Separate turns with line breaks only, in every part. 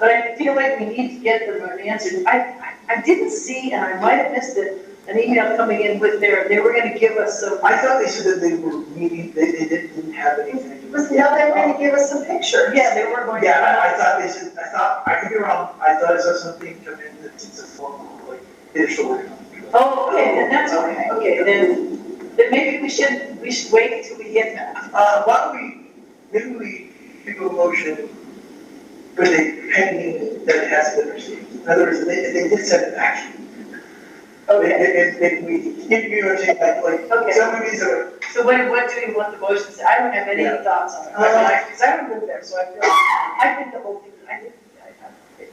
but I feel like we need to get them an answer. I, I- I didn't see, and I might have missed it, an email coming in with their, they were gonna give us some,
I thought they said that they were meeting, they, they didn't didn't have anything. to do with
Was, now they were gonna
it.
give us some pictures.
yeah, they were going to.
Yeah, I, I thought they said, I thought, I could be wrong, I thought I saw something come in that it's a formal, like, initial.
Oh, okay, then that's okay, okay, then, then maybe we should, we should wait until we get that.
Uh, why don't we, maybe we do a motion with a pending that it has been received. In other words, they, they did send it action.
Okay,
If, if, if we, if you were saying like, like,
Okay.
some of these are,
so what, what do you want the motion to say? I don't have any
Yeah.
thoughts on it,
Uh,
because I don't live there, so I feel, I think the whole thing, I think, I- I-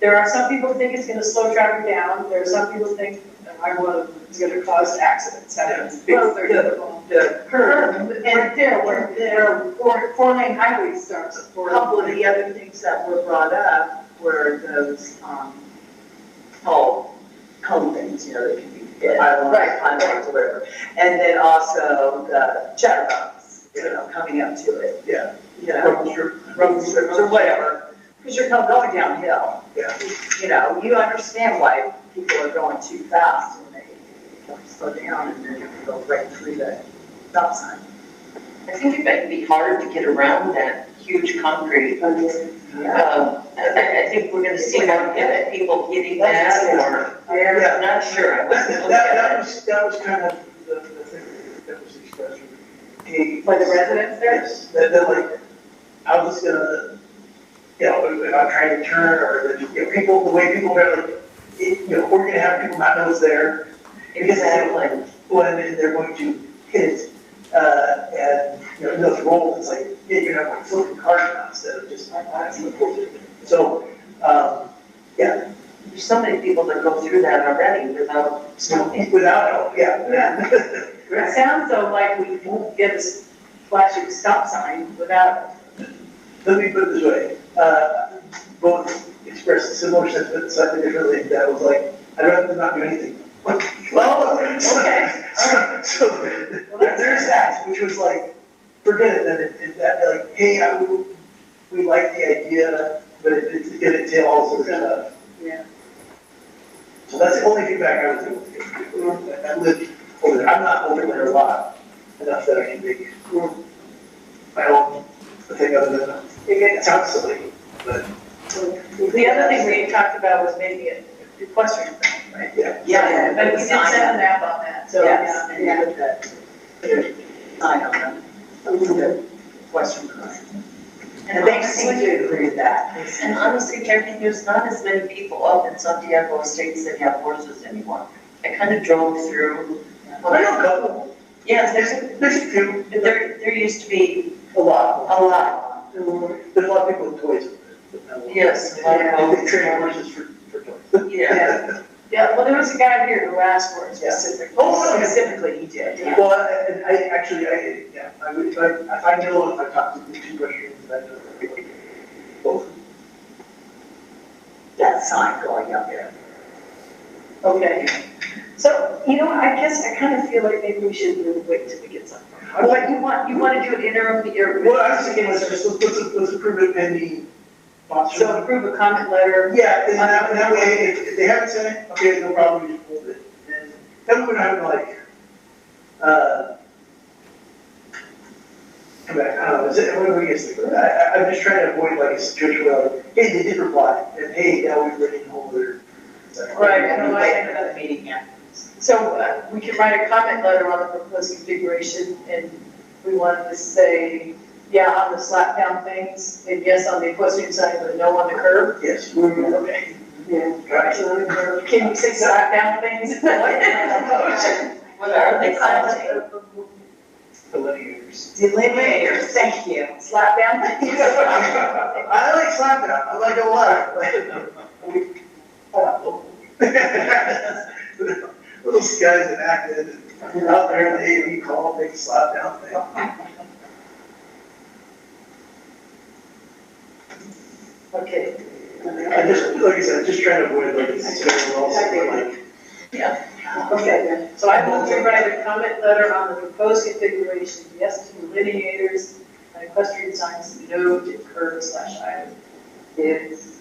there are some people who think it's gonna slow traffic down, there are some people who think, that I want, it's gonna cause accidents, happens, because they're
Yeah.
difficult.
yeah,
Curve, and there were, there were four, four lane highway starts at four.
A couple of the other things that were brought up were those, um, tall cone things, you know, that can be, I want,
Right.
I want to whatever. And then also the chatterbox, you know, coming up to it,
yeah.
you know, road strips or whatever. Because you're not going downhill.
Yeah.
You know, you understand why people are going too fast when they don't slow down and then they go right through the stop sign.
I think it might be hard to get around that huge concrete. Um, I, I think we're gonna see more get- people getting that or,
Yeah.
I'm not sure. I
That,
wasn't
that,
looking at
that
it.
was, that was kind of the, the thing that was expressed.
By the residents there?
Yes, that, that like, I'm just gonna, you know, if I'm trying to turn or the, you know, people, the way people are like, it, you know, we're gonna have people not know it's there. Because it's like,
Exactly.
when they're going to hit it, uh, and, you know, those rolls, it's like, yeah, you're not like flipping cars now instead of just, so, um, yeah,
There's so many people that go through that already without
so
stopping.
without help, yeah.
It sounds though like we won't get a flashing stop sign without,
Let me put it this way, uh, both expressed similar sentiments slightly differently, that was like, I'd rather not do anything. Well,
okay,
So, so there- there's that, which was like, forget it, then it, it, that, like, hey, I, would- we like the idea, but it, it, it entails all sorts of stuff.
Yeah.
So that's the only feedback I was able to give, I lived over there, I'm not over there a lot, enough that I can make my own thing other than that. It sounds silly, but
the other thing we had talked about was maybe a equestrian thing, right?
yeah.
Yeah.
But we did
Sign up.
send an app on that, so,
Yes,
yeah,
and you
yeah.
put the sign on them, a little bit western cross. And they seem to agree with that.
And honestly, Jackie, there's not as many people up in Santiago Estates that have horses anymore. I kind of drove through.
I know a couple,
Yeah, there's, a-
there's, there's a few,
there, there used to be
a lot,
a lot.
there's a lot of people with toys.
Yes, a lot of
And they
boats.
train horses for, for toys.
Yeah.
Yeah, well, there was a guy here who asked for it
Yeah.
specifically.
Oh, no,
Specifically, he did, yeah.
Well, I- and I, actually, I, yeah, I would, if I, if I know if I talk to the two Russians, I know. Both.
That sign going up there.
Okay, so, you know, I guess I kind of feel like maybe we should really wait till we get something.
I was
But you want, you want to do an interim, or.
What I was thinking was just, let's, let's, let's approve it pending.
So approve a comment letter,
Yeah, and that, and that way, if, if they haven't sent it, okay, no problem, we just hold it. And then we're not having like, uh, come back, I don't know, is it, what do we get, to do? I, I, I'm just trying to avoid like a situation where, like, hey, they did reply, and hey, now we're ready to hold their.
Right, I don't know, I-
Another meeting, yeah.
so uh, we can write a comment letter on the proposed configuration, and we wanted to say, yeah, on the slap down things, and yes on the equestrian side, but no on the curb.
Yes.
Okay.
Right.
Can you say slap down things? uh,
What are they called?
Delineators.
Delineators, thank you.
Slap down things?
I like slapping, I like "Oh, it a lot, but we, oh, well. Little guys in Acton, and out there in the AV call, big slap down thing.
Okay.
I just, like I said, just trying to avoid like this, like,
Okay, so I will rewrite a comment letter on the proposed configuration, yes to delineators, and equestrian signs, no to curb slash island. Yes.